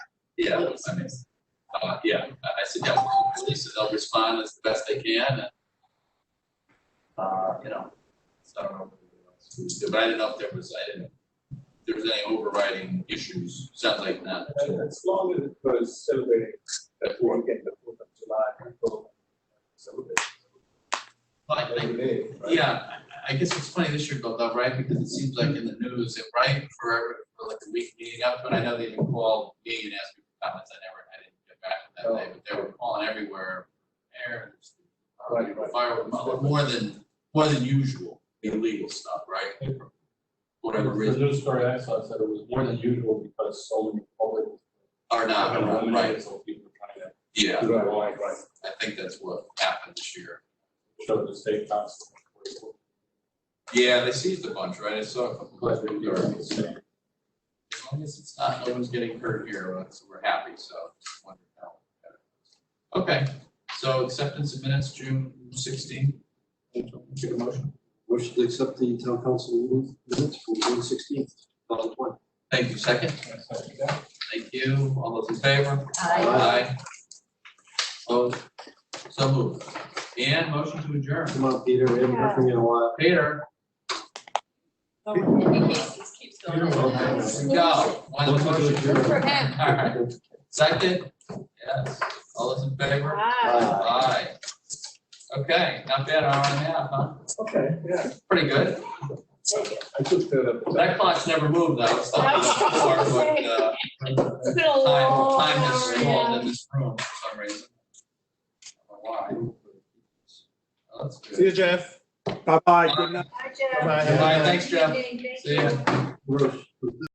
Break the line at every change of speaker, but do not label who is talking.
Yeah, I mean, uh, yeah, I I suggest we release it, they'll respond as best they can, and, uh, you know, so, but I didn't know if there was, I didn't, if there was any overriding issues, sounds like none.
And Uh, as long as it was celebrating the fourth and the fourth of July, and so, celebrate.
Like, like,
Every day, right?
Yeah, I- I guess it's funny this year, Bill, though, right, because it seems like in the news, it right for, for like the week leading up, but I know they even called me and asked me for comments, I never, I didn't get back that day, but they were calling everywhere. errands, uh,
Right, right.
fire- More than, more than usual, illegal stuff, right? Whatever
The
reason,
news story I saw said it was more than usual because so many public.
or not, right,
So people were trying
yeah,
to.
Right, right, right.
I think that's what happened this year.
Show the state constantly.
Yeah, they seized a bunch, right, I saw a couple.
But we are
As
the same.
long as it's not, no one's getting hurt here, uh, so we're happy, so. just wondered how that- Okay, so acceptance of minutes, June sixteenth. Take a motion.
Motion to accept the town council minutes from June sixteenth, two thousand twenty.
Thank you, second. Thank you. All those in favor?
Aye.
I
Opposed? So moved. And motion to adjourn.
Come on, Peter, we haven't heard from you in a while.
Peter,
And the case keeps going.
You're welcome.
go. One
Motion to
motion.
adjourn.
Good for him.
All right. Second? Yes. All those in favor?
Hi.
Aye. Okay, not bad, hour and a half, huh?
Okay, yeah.
Pretty good.
I took the.
That clock's never moved though. It's not before, but, uh,
It's been a
Time,
long
time has
hour,
stalled
yeah.
in this room for some reason. I don't know why. Oh, That's
See you,
good.
Jeff. Bye-bye.
Bye.
Good night.
Hi, Jeff.
Bye-bye.
Bye, thanks, Jeff.
Thank you.
See ya.
Rush.